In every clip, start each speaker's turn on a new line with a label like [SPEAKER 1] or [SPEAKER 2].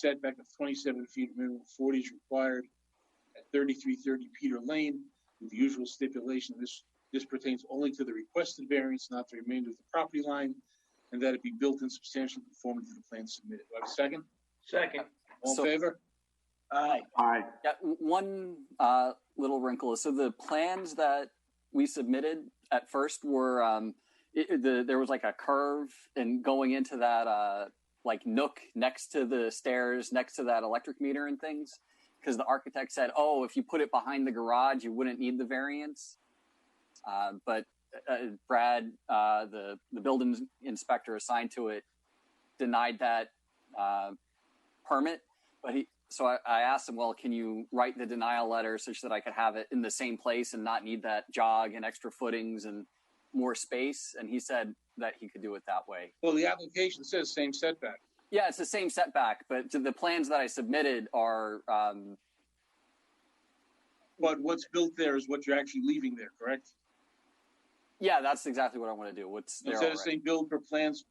[SPEAKER 1] setback of twenty-seven feet minimum footage required at thirty-three thirty Peter Lane with the usual stipulation. This, this pertains only to the requested variance, not the remainder of the property line, and that it be built in substantial conformity to the plan submitted. Do I have a second?
[SPEAKER 2] Second.
[SPEAKER 1] All
[SPEAKER 3] So-
[SPEAKER 1] in favor?
[SPEAKER 2] Aye.
[SPEAKER 4] Aye.
[SPEAKER 3] Yeah, w- one uh, little wrinkle. is So the plans that we submitted at first were um, it, it- the, there was like a curve, and going into that uh, like nook next to the stairs, next to that electric meter and things, because the architect said, "Oh, if you put it behind the garage, you wouldn't need the variance." Uh, but uh, Brad, uh, the the building inspector assigned to it, denied that uh, permit. But he, so I, I asked him, well, can you write the denial letter such that I could have it in the same place and not need that jog and extra footings and more space? And he said that he could do it that way.
[SPEAKER 1] Well, the application says same setback.
[SPEAKER 3] Yeah, it's the same setback, but to the plans that I submitted are, um,
[SPEAKER 1] But what's built there is what you're actually leaving there, correct?
[SPEAKER 3] yeah, that's exactly what I want to do. What's there
[SPEAKER 1] Instead
[SPEAKER 3] already.
[SPEAKER 1] of saying build per plans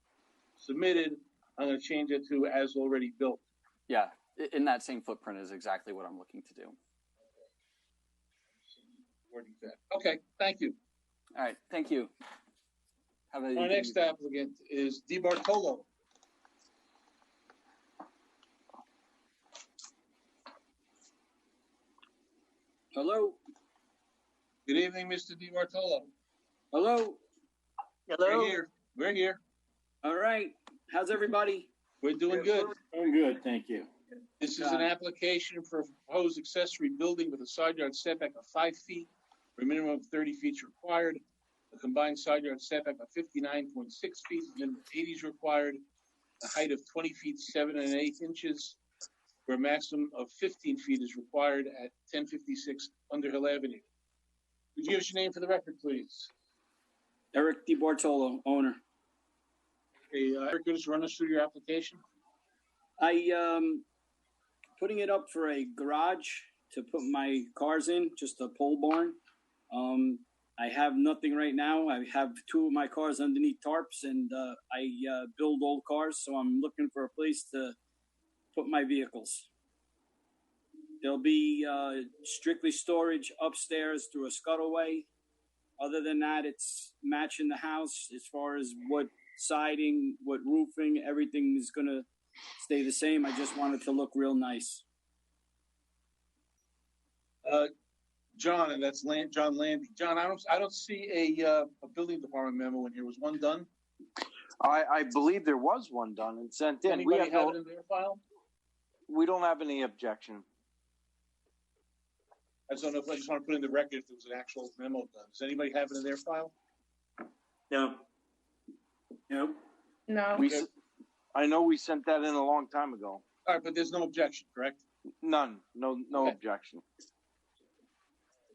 [SPEAKER 1] submitted, I'm gonna change it to as already built.
[SPEAKER 3] yeah, i- in that same footprint is exactly what I'm looking to do.
[SPEAKER 1] Wording that. Okay, thank you.
[SPEAKER 3] All right, thank you. Have a
[SPEAKER 1] Our next applicant is Di Bartolo.
[SPEAKER 5] Hello,
[SPEAKER 1] Good evening, Mr. Di Bartolo.
[SPEAKER 5] hello.
[SPEAKER 1] We're here. We're here.
[SPEAKER 5] All right, how's everybody?
[SPEAKER 1] We're doing good.
[SPEAKER 5] Doing good, thank you.
[SPEAKER 1] This is an application for a proposed accessory building with a side yard setback of five feet, where a minimum of thirty feet is required. A combined side yard setback of fifty-nine point six feet, minimum eighty is required. A height of twenty feet, seven and an eighth inches, where a maximum of fifteen feet is required at ten fifty-six Underhill Avenue. Could you give us your name for the record, please?
[SPEAKER 5] Eric DiBartolo, owner.
[SPEAKER 1] Okay, uh, Eric, could you just run us through your application?
[SPEAKER 5] I, um, putting it up for a garage to put my cars in, just a pole barn. Um, I have nothing right now. I have two of my cars underneath tarps and, uh, I, uh, build old cars, so I'm looking for a place to put my vehicles. There'll be, uh, strictly storage upstairs through a scuttleway. Other than that, it's matching the house as far as what siding, what roofing, everything is gonna stay the same. I just want it to look real nice.
[SPEAKER 1] John, and that's Land, John Landy. John, I don't, I don't see a, uh, a building department memo in here. Was one done?
[SPEAKER 4] I, I believe there was one done and sent in. We,
[SPEAKER 1] Anybody
[SPEAKER 4] have
[SPEAKER 1] have it
[SPEAKER 4] no,
[SPEAKER 1] in their file?
[SPEAKER 4] we don't have any objection.
[SPEAKER 1] I just don't know, if I just want to put in the record if there was an actual memo done. Does anybody have it in their file?
[SPEAKER 5] No. Nope.
[SPEAKER 6] No,
[SPEAKER 4] We, s- I know we sent that in a long time ago.
[SPEAKER 1] All right, but there's no objection, correct?
[SPEAKER 4] None, no, no
[SPEAKER 1] Okay.
[SPEAKER 4] objection.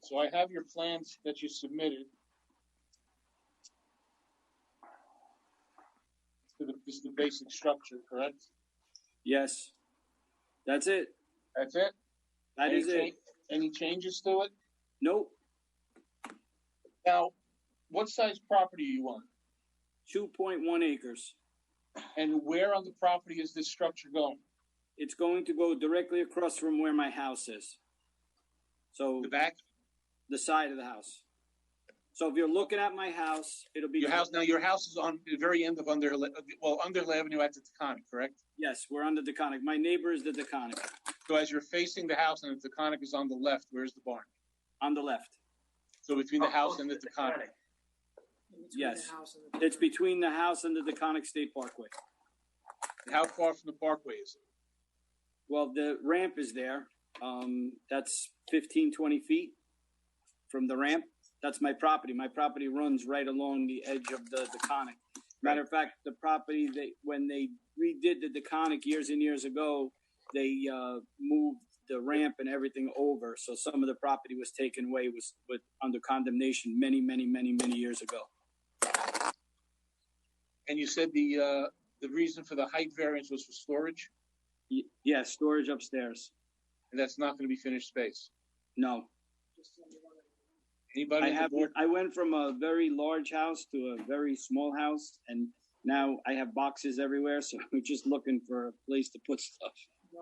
[SPEAKER 1] So I have your plans that you submitted. To the, just the basic structure, correct?
[SPEAKER 5] Yes. That's it.
[SPEAKER 1] That's it?
[SPEAKER 5] That
[SPEAKER 1] Any
[SPEAKER 5] is it.
[SPEAKER 1] cha- Any changes to it?
[SPEAKER 5] Nope.
[SPEAKER 1] Now, what size property are you on?
[SPEAKER 5] Two point one acres.
[SPEAKER 1] And where on the property is this structure going?
[SPEAKER 5] It's going to go directly across from where my house is. So
[SPEAKER 1] The back?
[SPEAKER 5] the side of the house. So if you're looking at my house, it'll be
[SPEAKER 1] Your house, now your house is on the very end of Underhill, well, Underhill Avenue at the Taconic, correct?
[SPEAKER 5] Yes, we're on the Deconic. My neighbor is the Deconic
[SPEAKER 1] So as you're facing the house and the Taconic is on the left, where's the barn?
[SPEAKER 5] on the left.
[SPEAKER 1] So between the house and Oh, the Taconic.
[SPEAKER 5] Yes. It's between the house and the Deconic State Parkway.
[SPEAKER 1] And How far from the parkway is it?
[SPEAKER 5] Well, the ramp is there. Um, that's 15, 20 feet from the ramp. That's my property. My property runs right along the edge of the Deconic. Matter of fact, the property they when they redid the Deconic years and years ago, they uh, moved the ramp and everything over. So some of the property was taken away was with under condemnation many, many, many, many years ago.
[SPEAKER 1] And you said the, uh, the reason for the height variance was for storage,
[SPEAKER 5] Y- yeah, storage upstairs.
[SPEAKER 1] and that's not gonna be finished space.
[SPEAKER 5] No,
[SPEAKER 1] Anybody
[SPEAKER 5] I
[SPEAKER 1] on the
[SPEAKER 5] have.
[SPEAKER 1] board?
[SPEAKER 5] I went from a very large house to a very small house, and now I have boxes everywhere. So we're just looking for a place to put stuff.